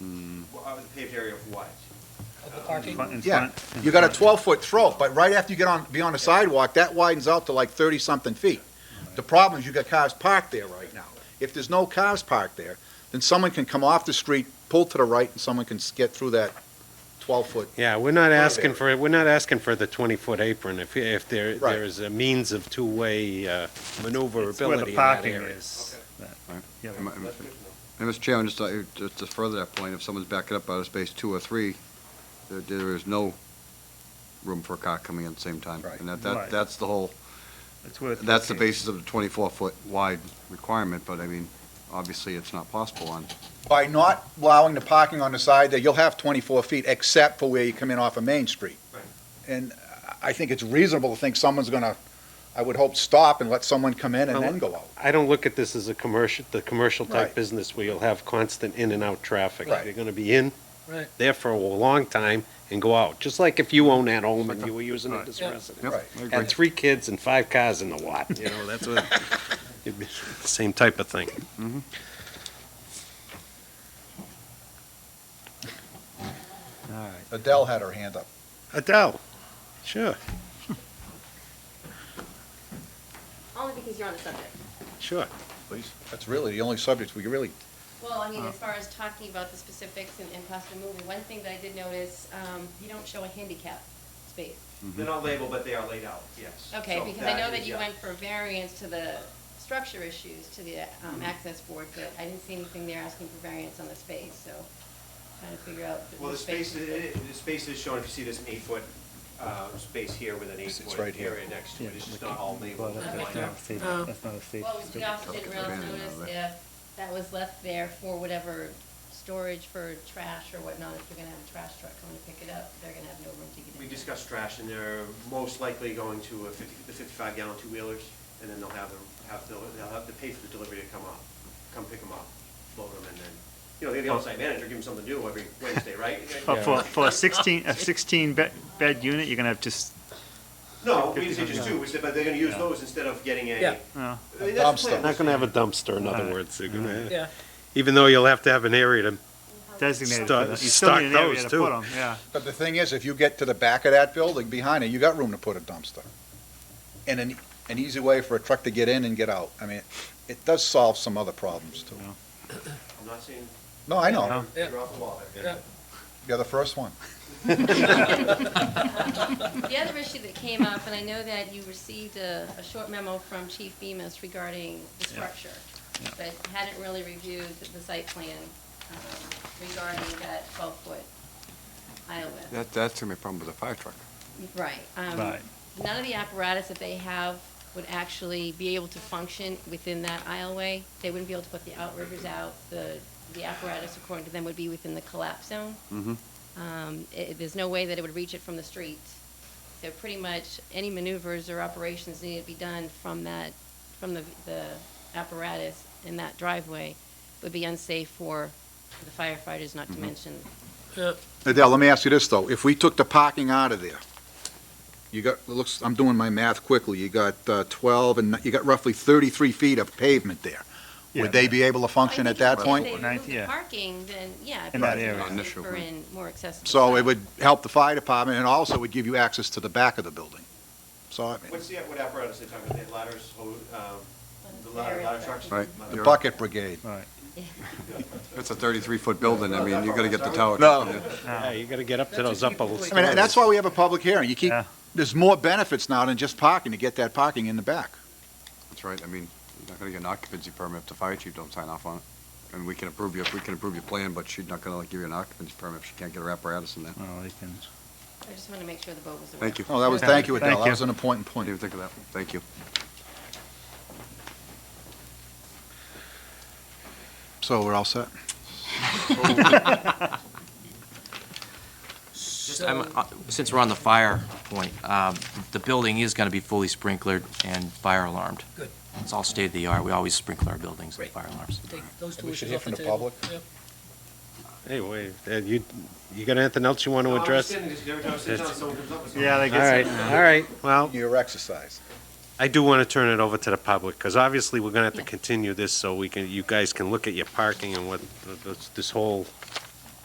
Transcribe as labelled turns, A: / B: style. A: of the paved area of what?
B: Of the parking?
C: Front- in
D: Yeah,
C: front- in
D: you got a
C: front.
D: twelve-foot throat, but right after you get on, beyond the sidewalk, that widens out to like thirty-something feet. The problem is you got cars parked there right now. If there's no cars parked there, then someone can come off the street, pull to the right, and someone can s- get through that twelve-foot.
E: Yeah, we're not
D: Front
E: asking
D: area.
E: for, we're not asking for the 20-foot apron if, if there,
D: Right.
E: there is a means of two-way uh,
C: It's where
E: maneuverability
C: the
E: in that
C: parking
E: area.
C: is.
F: Right.
C: Yeah.
F: And Mr. Chairman, just to, just to further that point, if someone's backing up out of space two or three, there, there is no room for a car coming in at the same time.
D: Right.
F: And that,
C: Right.
F: that, that's the whole,
C: It's where the
F: that's the
C: parking is.
F: basis of the twenty-four foot wide requirement, but I mean, obviously, it's not possible on,
D: By not allowing the parking on the side there, you'll have twenty-four feet, except for where you come in off of Main Street.
A: Right.
D: And I- I think it's reasonable to think someone's gonna, I would hope, stop and let someone come in and then go out.
E: I don't look at this as a commercial, the commercial
D: Right.
E: type business where you'll have constant in and out traffic.
D: Right.
E: You're gonna be in
B: Right.
E: there for a long time and go out, just like if you own that home and you were using it as
B: Yeah.
F: Yep,
E: residence.
D: Right.
F: I agree.
E: Had three kids and five cars in the lot, you know, that's what, it'd be the same type of thing.
D: Adele had her hand up.
E: Adele, sure,
G: Only because you're on the subject.
E: sure.
D: That's really the only subject we really
G: Well, I mean, as far as talking about the specifics and, and possibly moving, one thing that I did notice, um, you don't show a handicap space.
A: They're not labeled, but they are laid out, yes.
G: Okay,
A: So
G: because I know that
A: is-
G: you
A: yeah.
G: went for variance to the structure issues, to the, um, access board, but I didn't see anything there asking for variance on the space, so trying to figure out.
A: Well, the
G: which
A: space,
G: is
A: i- i- the space is shown, if you see this eight-foot uh, space here with an
D: It's- it's
A: eight-foot
D: right here.
A: area next to
C: Yeah,
A: it, it's
C: like-
A: just not all
C: Well,
A: labeled.
C: that- that's
A: lined
C: not
A: up.
C: a safe, that's not a safe.
G: Well, we also didn't really
F: Abandoned,
G: notice
F: are they?
G: if that was left there for whatever storage for trash or whatnot, if you're gonna have a trash truck coming to pick it up, they're gonna have no room to get in.
A: We
G: there.
A: discussed trash, and they're most likely going to a fifty, the fifty-five gallon two-wheelers, and then they'll have them, have, the- they'll have to pay for the delivery to come up, come pick them up, load them, and then, you know, they're the on-site manager, give them something to do every Wednesday, right?
C: For, for- for a sixteen, a sixteen bed, bed unit, you're gonna have just,
A: No, we didn't say just two, we said, but they're gonna use those instead of getting
B: Yeah.
A: a.
C: uh,
A: I mean, that's the
D: Dumpster.
A: plan.
E: Not gonna have a dumpster, in other
C: Alright.
E: words, they're gonna,
B: Yeah.
E: even though you'll have to have an area to
C: designated for
E: Stock-
C: that. You still need an
E: stock
C: area
E: those,
C: to
E: too.
C: put them, yeah.
D: But the thing is, if you get to the back of that building, behind it, you got room to put a dumpster. And an, an easy way for a truck to get in and get out. I mean, it does solve some other problems too.
A: I'm not saying
D: No, I know.
B: Yeah.
A: you're off the wall there.
B: Yeah.
D: You're the first one.
G: The other issue that came up, and I know that you received a, a short memo from Chief Bemis regarding the structure, but hadn't really reviewed the- the site plan um, regarding that 12-foot aisle width.
F: That, that's gonna be a problem with a fire truck.
G: Right. um,
C: Right.
G: None of the apparatus that they have would actually be able to function within that aisleway. They wouldn't be able to put the outriggers out. The, the apparatus, according to them, would be within the collapse zone. Um, i- There's no way that it would reach it from the street. So pretty much any maneuvers or operations needed to be done from that, from the, the apparatus in that driveway would be unsafe for the firefighters, not to mention
D: Adele, let me ask you this though. If we took the parking out of there, you got, it looks, I'm doing my math quickly. You got uh, twelve and you got roughly thirty-three feet of pavement there.
C: Yeah.
D: Would they be able to function at that point?
G: If they
C: Ninth,
G: remove the
C: yeah.
G: parking, then, yeah.
C: In that
G: because
C: area.
G: it's
F: Not an issue,
G: safer
F: right.
G: and more accessible.
D: So it would help the fire department and also would give you access to the back of the building. So I mean,
A: What's the, what apparatus they talking about, the ladders, oh, um, the ladder,
G: Very
A: ladder
G: effective.
A: trucks?
F: Right.
A: Ladder-
D: the bucket brigade.
F: If It's a thirty-three foot building, I mean, you gotta get the tower.
D: No.
E: Yeah, you gotta get up to those upper.
D: I mean, that's why we have a public hearing. You keep,
C: Yeah.
D: there's more benefits now than just parking, to get that parking in the back.
F: That's right, I mean, you're not gonna get an occupancy permit if the fire chief don't sign off on it. And we can approve your, we can approve your plan, but she's not gonna like, give you an occupancy permit if she can't get her apparatus in there. I
C: Well, they can,
G: I just want to make sure the boat was aware.
F: Thank you.
D: Oh, that was, thank you, Adele,
C: Thank
D: that
C: you.
D: was an important
F: didn't
D: point.
F: even think of that, thank you.
D: So we're all set?
H: Just, I'm, uh, since we're on the fire point, um, the building is gonna be fully sprinklered and fire alarmed.
B: Good.
H: It's all state of the art, we always sprinkle our buildings with
B: Great.
H: fire alarms.
B: Take those two
D: We should
B: issues
D: hear
B: off
D: from the
B: table.
D: public.
B: Yep.
E: Anyway, uh, you, you got anything else you want
A: No,
E: to
A: I'm just
E: address?
A: saying, because every time I sit down,
E: That's-
A: someone comes up with something.
C: yeah, they
E: All
C: get.
E: right, all right, well,
D: Your exercise.
E: I do want to turn it over to the public, because obviously, we're going to have to
G: Yeah.
E: continue this so we can, you guys can look at your parking and what, this- this whole